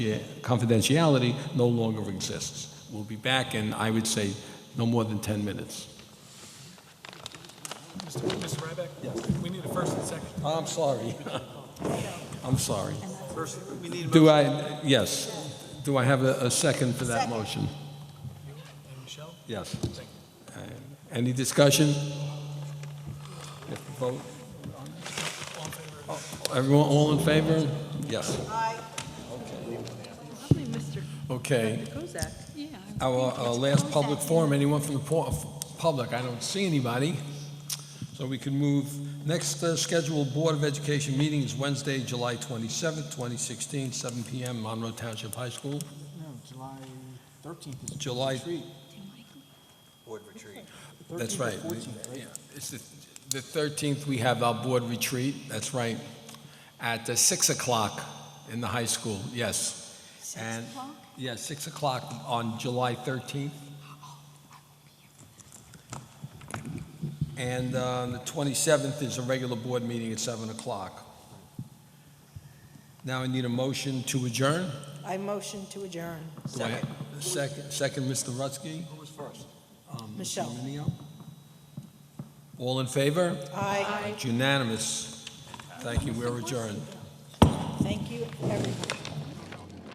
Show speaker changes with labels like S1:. S1: confidentiality no longer exists. We'll be back in, I would say, no more than 10 minutes.
S2: Mr. Ryback?
S1: Yes.
S2: We need a first and second.
S1: I'm sorry. I'm sorry.
S2: First, we need a
S1: Do I, yes, do I have a a second for that motion?
S2: And Michelle?
S1: Yes. Uh, Any discussion? If the vote- Oh, Everyone, all in favor? Yes.
S3: Probably Mr.
S1: Okay.
S3: Kozak.
S1: Our our last public forum, anyone from the pu- public? I don't see anybody. So we can move, next uh, scheduled Board of Education meeting is Wednesday, July 27th, 2016, 7 PM, Monroe Township High School.
S4: No, July 13th is.
S1: July-
S4: retreat.
S2: Board retreat.
S1: That's
S4: 13th or
S1: right.
S4: 14th, right?
S1: Yeah. It's the the 13th, we have our board retreat, that's right, at uh, 6 o'clock in the high school, yes. And- Yeah, 6 o'clock on July 13th. And uh, the 27th is a regular board meeting at 7 o'clock. Now I need a motion to adjourn.
S5: I motion to adjourn.
S1: Do I- Second, second, Mr. Rutsky.
S2: Who was first?
S1: Um, Mr.
S5: Michelle.
S1: Minio. All in favor?
S5: Aye.
S1: It's unanimous. Thank you, we're adjourned.
S5: Thank you, everyone.